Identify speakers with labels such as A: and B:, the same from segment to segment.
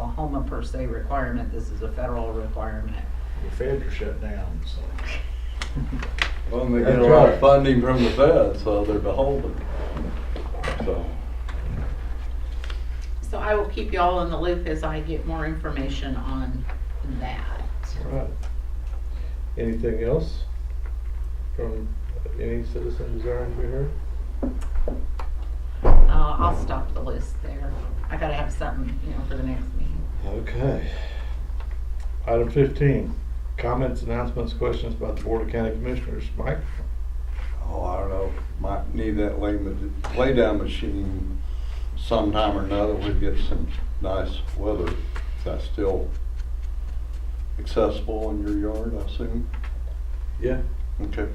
A: Oklahoma per se requirement, this is a federal requirement.
B: The feds are shut down, so.
C: Well, and they
D: That's
C: get a lot
D: right.
C: of funding from the Fed, so they're beholden. So,
A: So I will keep y'all in the loop as I get more information on that.
D: Right. Anything else from any citizen desiring to be heard?
A: Uh, I'll stop the list there. I gotta have something, you know, for the next meeting.
D: Okay. Item fifteen, comments, announcements, questions by the Board of County Commissioners. Mike?
C: oh, I don't know, might need that lay, lay down machine sometime or another. We get some nice weather. Is that still accessible in your yard, I assume?
D: Yeah.
C: Okay.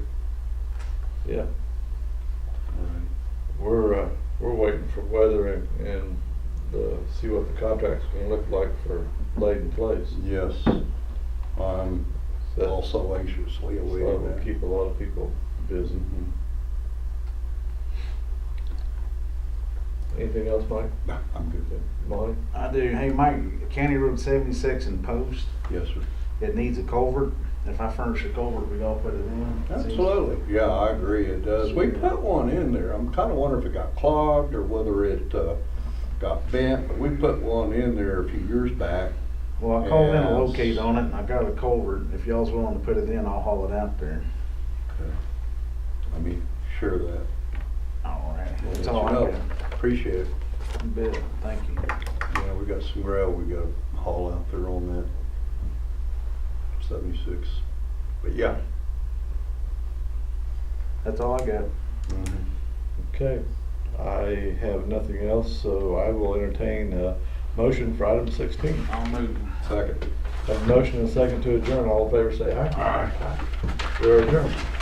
D: Yeah,
C: All right.
D: we're, uh, we're waiting for weather and, and, uh, see what the contract's gonna look like for laid in place.
C: Yes, I'm
D: So
C: also anxiously
D: so
C: awaiting
D: That'll
C: that.
D: keep a lot of people busy.
C: Mhm.
B: Mm-hmm.
D: Anything else, Mike?
C: No, I'm good there.
D: Monty?
B: I do, hey, Mike, County Road seventy-six in Post,
C: Yes, sir.
B: it needs a culvert. If I furnish a culvert, we all put it in.
C: Absolutely, yeah, I agree, it does. We put one in there, I'm kinda wondering if it got clogged or whether it, uh, got bent, but we put one in there a few years back.
B: Well, I called in
C: Yes.
B: a locate on it and I got a culvert. If y'all's willing to put it in, I'll haul it out there.
C: I mean, sure of that.
B: All right, that's
C: Let
B: all I
C: you know.
B: got.
C: Appreciate it.
B: You bet. Thank you.
C: Yeah, we got some gravel we gotta haul out there on that seventy-six, but yeah.
B: That's all I got.
C: mhm.
D: Okay, I have nothing else, so I will entertain a motion for item sixteen.
B: I'll move.
C: Second.
D: Have a motion and a second to adjourn, all in favor say aye.
B: All right.
D: We're adjourned.